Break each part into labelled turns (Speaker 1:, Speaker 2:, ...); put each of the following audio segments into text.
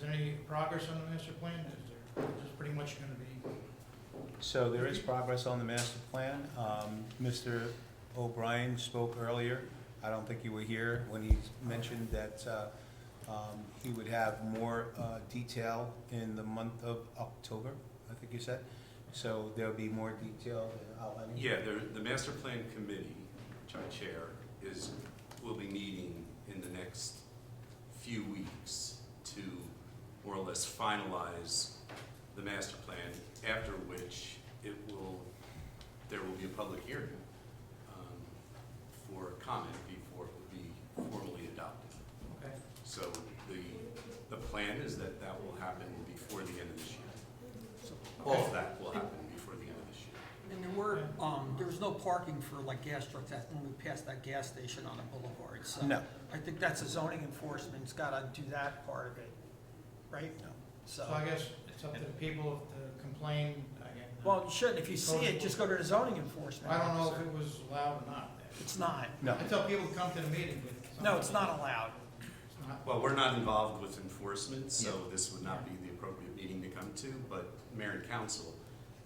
Speaker 1: there any progress on the master plan? Is there, is this pretty much gonna be,
Speaker 2: So there is progress on the master plan. Um, Mr. O'Brien spoke earlier. I don't think you were here when he mentioned that uh, um, he would have more uh, detail in the month of October, I think you said. So there'll be more detail outlining.
Speaker 3: Yeah, the, the master plan committee, which I chair, is, will be meeting in the next few weeks to more or less finalize the master plan, after which it will, there will be a public hearing um, for comment before it will be formally adopted.
Speaker 1: okay?
Speaker 3: So the, the plan is that that will happen before the end of this year. All of that will happen before the end of this year.
Speaker 4: And there were, um, there was no parking for like gas trucks that, when we passed that gas station on the boulevard, so.
Speaker 2: No.
Speaker 4: I think that's a zoning enforcement, it's gotta do that part of it, right?
Speaker 2: No.
Speaker 4: So,
Speaker 1: So I guess it's up to the people to complain, again.
Speaker 4: well, you should, if you see it, just go to the zoning enforcement.
Speaker 1: I don't know if
Speaker 4: officer.
Speaker 1: it was allowed or not.
Speaker 4: It's not,
Speaker 2: No,
Speaker 1: I tell people to come to the meeting, but. it's
Speaker 4: no, it's not allowed.
Speaker 1: It's not.
Speaker 3: Well, we're not involved with enforcement, so this would not be the appropriate meeting to come to, but mayor and council,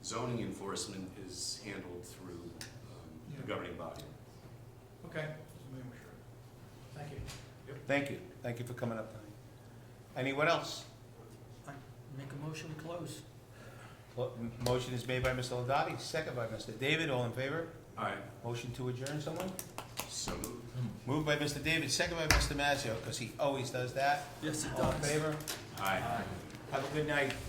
Speaker 3: zoning enforcement is handled through um,
Speaker 1: Yeah.
Speaker 3: the governing body.
Speaker 1: Okay, just making sure. Thank you.
Speaker 2: thank you. Thank you for coming up tonight. Anyone else?
Speaker 4: I Make a motion to close.
Speaker 2: Well, m- Motion is made by Mr. Ladati, second by Mr. David. All in favor?
Speaker 3: All right,
Speaker 2: Motion to adjourn, someone?
Speaker 3: so moved.
Speaker 2: Moved by Mr. David, second by Mr. Mazzio, because he always does that.
Speaker 4: Yes, it
Speaker 2: All in favor?
Speaker 3: Aye.
Speaker 2: Have a good night.